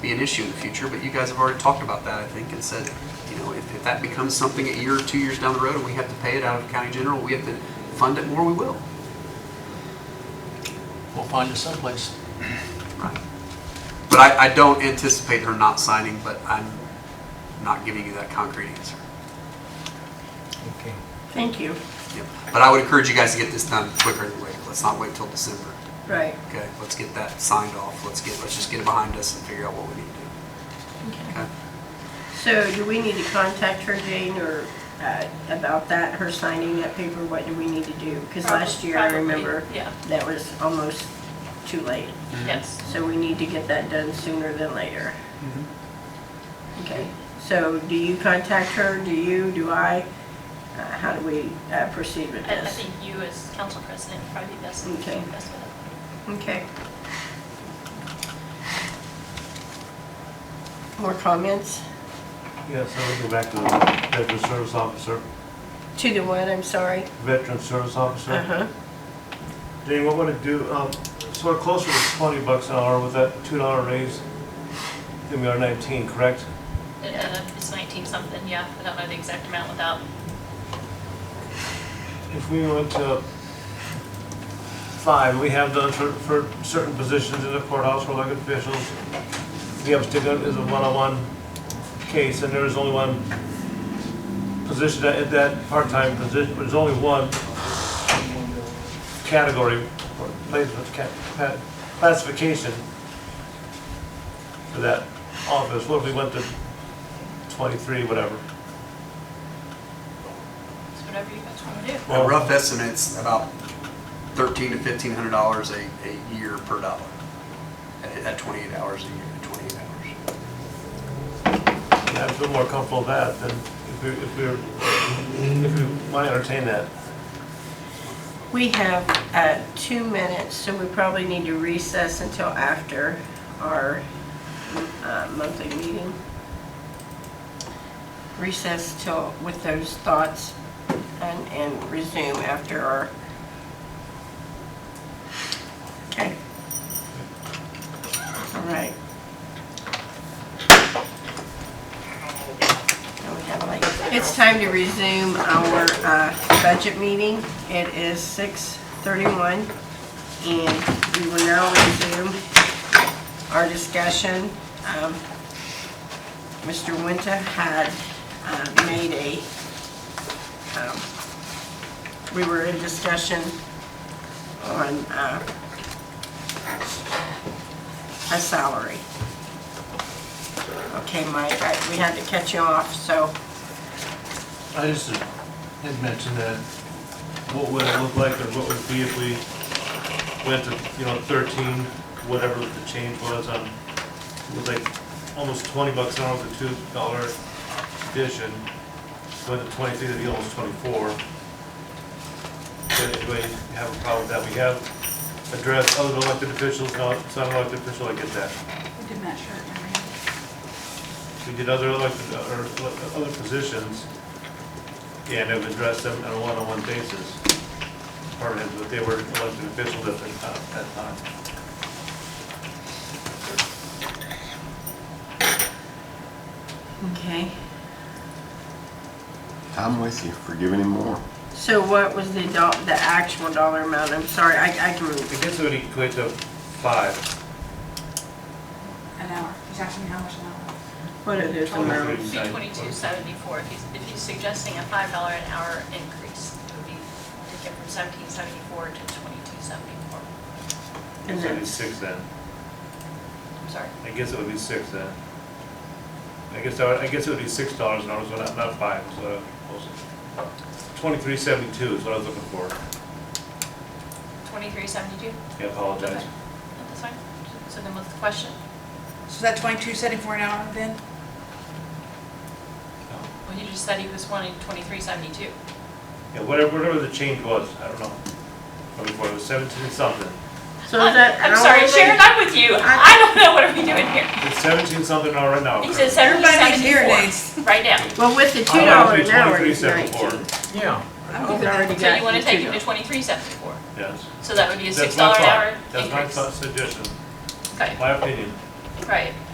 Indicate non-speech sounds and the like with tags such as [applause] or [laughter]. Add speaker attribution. Speaker 1: be an issue in the future, but you guys have already talked about that, I think, and said, you know, if, if that becomes something a year, or two years down the road, and we have to pay it out of county general, we have to fund it more, we will.
Speaker 2: We'll find it someplace.
Speaker 1: Right. But I, I don't anticipate her not signing, but I'm not giving you that concrete answer.
Speaker 3: Okay.
Speaker 4: Thank you.
Speaker 1: Yep. But I would encourage you guys to get this done quicker than later. Let's not wait till December.
Speaker 4: Right.
Speaker 1: Okay, let's get that signed off. Let's get, let's just get it behind us and figure out what we need to do. Okay.
Speaker 4: So do we need to contact her, Jane, or uh, about that, her signing that paper? What do we need to do? Because last year, I
Speaker 5: Probably,
Speaker 4: remember,
Speaker 5: yeah.
Speaker 4: that was almost too late.
Speaker 5: Yes.
Speaker 4: So we need to get that done sooner than later.
Speaker 5: Mm-hmm.
Speaker 4: Okay, so do you contact her? Do you, do I? Uh, How do we uh, proceed with
Speaker 5: I, I
Speaker 4: this?
Speaker 5: think you as council president would probably be best,
Speaker 4: Okay.
Speaker 5: best with it.
Speaker 4: Okay. More comments?
Speaker 6: Yes, I would go back to the veteran service officer,
Speaker 4: To the what, I'm sorry?
Speaker 6: veteran service officer.
Speaker 4: Uh-huh.
Speaker 6: Dave, what would it do, um, so we're closer to twenty bucks an hour with that two dollar raise than we are nineteen, correct?
Speaker 5: It, uh, It's 19 something, yeah. I don't know the exact amount without,
Speaker 6: If we went to five, we have done for, for certain positions in the courthouse for elected officials, we have to go as a one-on-one case, and there is only one position, that, that part-time position, there's only one category, or placement, ca- pa- classification for that office, what if we went to twenty-three, whatever?
Speaker 5: it's whatever you guys want to do.
Speaker 1: A rough estimate's about thirteen to fifteen hundred dollars a, a year per dollar. At, at twenty-eight hours a year, twenty-eight hours.
Speaker 6: Yeah, I feel more comfortable with that than if we, if we, were- if we want to entertain that.
Speaker 4: We have uh, two minutes, so we probably need to recess until after our uh, monthly meeting. Recess till, with those thoughts and and resume after our... Okay. All right. Now we have like- It's time to resume our uh, budget meeting. It is 6:31, and we will now resume our discussion. Um, Mr. Winter had uh, made a, um, we were in discussion on uh, a salary. Okay, Mike, I- we had to catch you off, so,
Speaker 6: I just had mentioned that, what would it look like or what would it be if we went to, you know, thirteen, whatever the change was on, it was like almost twenty bucks an hour with a two dollar addition, went to twenty-three, that'd be almost twenty-four. Does anybody have a problem with that? We have addressed other elected officials, not, it's not an elected official, I get that.
Speaker 7: We did not share it, remember?
Speaker 6: We did other elected, or other positions, and have addressed them on a one-on-one basis. Part of it, but they were elected officials at the time, that time.
Speaker 4: okay.
Speaker 8: I'm with you for giving him more.
Speaker 4: So what was the do, the actual dollar amount? I'm sorry, I, I can,
Speaker 6: I guess it would equate to five,
Speaker 7: An hour. He's asking me how much an hour.
Speaker 4: what are those amounts?
Speaker 5: It'd be 2274 if he's, if he's suggesting a $5 an hour increase. It would be to get from 1774 to 2274.
Speaker 4: And
Speaker 6: so it'd be
Speaker 4: that's-
Speaker 6: six then.
Speaker 5: I'm sorry.
Speaker 6: I guess it would be six then. I guess, I would- I guess it would be six dollars an hour, so not, not five, so. Twenty-three seventy-two is what I was looking for.
Speaker 5: 2372?
Speaker 6: I apologize.
Speaker 5: That's fine. So then what's the question?
Speaker 7: So that twenty-two setting for an hour then?
Speaker 5: Well, you just said he was wanting 2372.
Speaker 6: Yeah, whatever, whatever the change was, I don't know. Before it was seventeen something.
Speaker 4: So is that
Speaker 5: I'm sorry,
Speaker 4: hourly?
Speaker 5: Sharon, I'm with you. I don't know what are we doing here.
Speaker 6: It's seventeen something an hour right now.
Speaker 5: He
Speaker 6: correct?
Speaker 5: said 1774,
Speaker 7: nowadays.
Speaker 5: [laughs] right now.
Speaker 4: Well, with the two
Speaker 6: I
Speaker 4: dollar
Speaker 6: want
Speaker 4: an
Speaker 6: it to be
Speaker 4: hour, it's
Speaker 6: 23.74.
Speaker 4: nineteen.
Speaker 2: Yeah.
Speaker 7: I'm
Speaker 4: We've
Speaker 7: good with that.
Speaker 4: already
Speaker 5: So
Speaker 4: got
Speaker 5: you want to
Speaker 4: the two
Speaker 5: take it to
Speaker 4: dollars.
Speaker 5: twenty-three seventy-four,
Speaker 6: Yes.
Speaker 5: so that would be a six
Speaker 6: That's my
Speaker 5: dollar an
Speaker 6: thought.
Speaker 5: hour
Speaker 6: That's my
Speaker 5: increase.
Speaker 6: thought suggestion,
Speaker 5: Okay,
Speaker 6: my opinion.
Speaker 5: right,